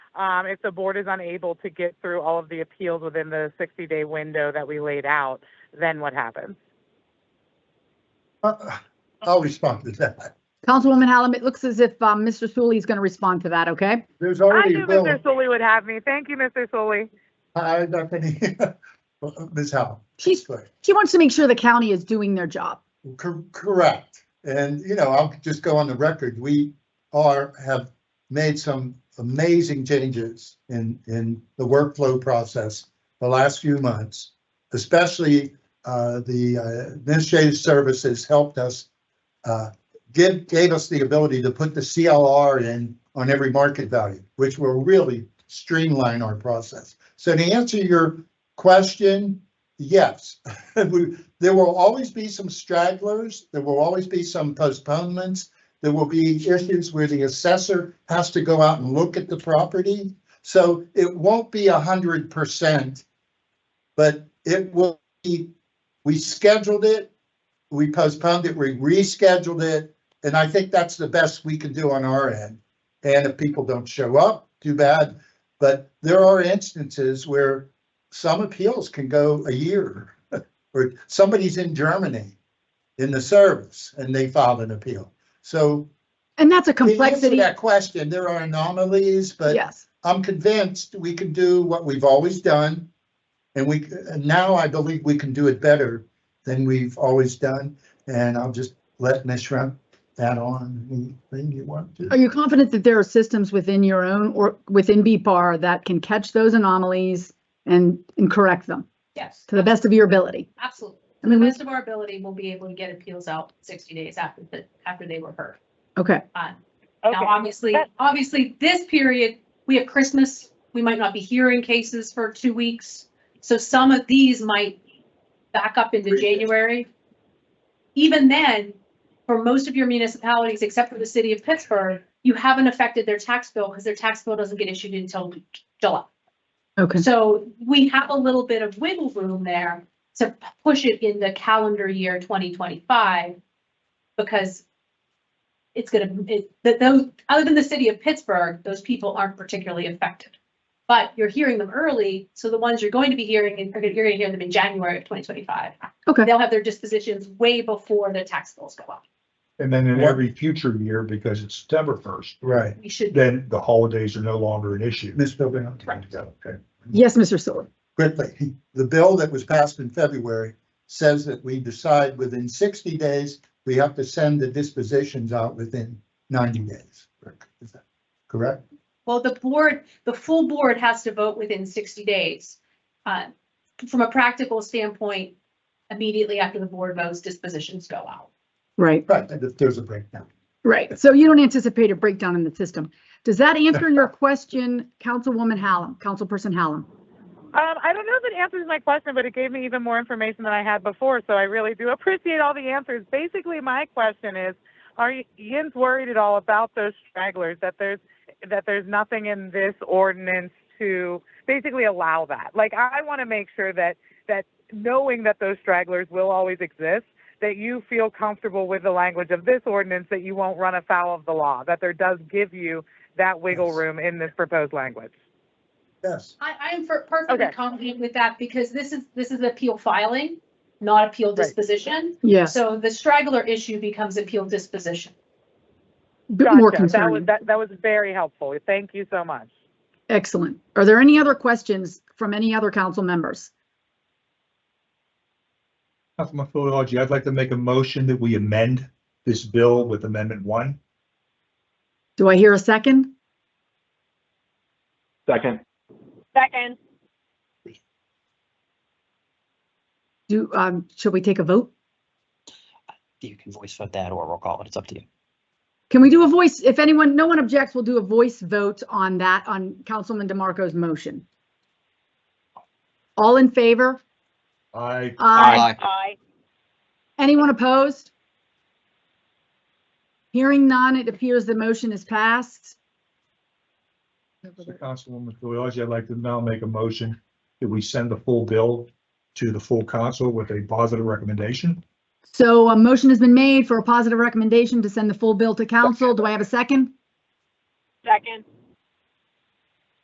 um, if the board is unable to get through all of the appeals within the 60-day window that we laid out, then what happens? Uh, I'll respond to that. Councilwoman Hallam, it looks as if um, Mr. Sully is going to respond to that, okay? There's I already knew a bill. Mr. Sully would have me. Thank you, Mr. Sully. I, I, Ms. Howe, She's, sorry. she wants to make sure the county is doing their job. Cor- Correct. And, you know, I'll just go on the record. We are, have made some amazing changes in, in the workflow process the last few months, especially uh, the uh, administrative services helped us, uh, give, gave us the ability to put the CLR in on every market value, which will really streamline our process. So to answer your question, yes, we, there will always be some stragglers, there will always be some postponements, there will be issues where the assessor has to go out and look at the property. So it won't be a hundred percent, but it will be, we scheduled it, we postponed it, we rescheduled it, and I think that's the best we can do on our end. And if people don't show up, too bad, but there are instances where some appeals can go a year or somebody's in Germany in the service and they filed an appeal. So And that's a to answer complexity. That question, there are anomalies, but Yes. I'm convinced we can do what we've always done. And we, and now I believe we can do it better than we've always done. And I'll just let Ms. Shrimp add on anything you want Are to. you confident that there are systems within your own or within BPAR that can catch those anomalies and, and correct them Yes, to the best of your ability? absolutely. I To the mean, we- best of our ability, we'll be able to get appeals out sixty days after the, after they were heard. Okay, Um, Now, Okay, obviously, that- obviously, this period, we have Christmas, we might not be hearing cases for two weeks. So some of these might back up into Appreciate it. January. Even then, for most of your municipalities, except for the city of Pittsburgh, you haven't affected their tax bill because their tax bill doesn't get issued until July. okay. So we have a little bit of wiggle room there to p- push it in the calendar year twenty twenty-five. Because it's gonna, it, that those, other than the city of Pittsburgh, those people aren't particularly affected. But you're hearing them early, so the ones you're going to be hearing, in- you're gonna hear them in January of twenty twenty-five. Okay. They'll have their dispositions way before their tax bills go up. And then in What- every future year, because it's September first, Right, We should. then the holidays are no longer an issue. Ms. Bilbao. Okay. Yes, Mr. Sully. quickly, the bill that was passed in February says that we decide within sixty days, we have to send the dispositions out within ninety days. Is that correct? Well, the board, the full board has to vote within sixty days. Uh, From a practical standpoint, immediately after the board votes, dispositions go out. Right, Right, and if there's a breakdown. right. So you don't anticipate a breakdown in the system. Does that answer your question, Councilwoman Hallam, Councilperson Hallam? um, I don't know if it answers my question, but it gave me even more information than I had before, so I really do appreciate all the answers. Basically, my question is, are y- Yin's worried at all about those stragglers, that there's, that there's nothing in this ordinance to basically allow that? Like, I want to make sure that, that knowing that those stragglers will always exist, that you feel comfortable with the language of this ordinance, that you won't run afoul of the law, that there does give you that wiggle Yes. room in this proposed language. Yes. I, I am per- perfectly Okay. confident with that because this is, this is appeal filing, not appeal Right. disposition. Yes, So the straggler issue becomes appeal disposition. bit more Gotcha. That was, concerning. that, that was very helpful. Thank you so much. Excellent. Are there any other questions from any other council members? Councilman Philology, I'd like to make a motion that we amend this bill with amendment one. Do I hear a second? Second. Second, Do, um, should we take a vote? you can voice vote that or roll call it. It's up to you. Can we do a voice, if anyone, no one objects, we'll do a voice vote on that, on Councilman DeMarco's motion. All in favor? I, Aye. aye. Anyone opposed? Hearing none, it appears the motion is passed. Councilwoman Philology, I'd like to now make a motion that we send the full bill to the full council with a positive recommendation. So a motion has been made for a positive recommendation to send the full bill to council. Do I have a second? Second,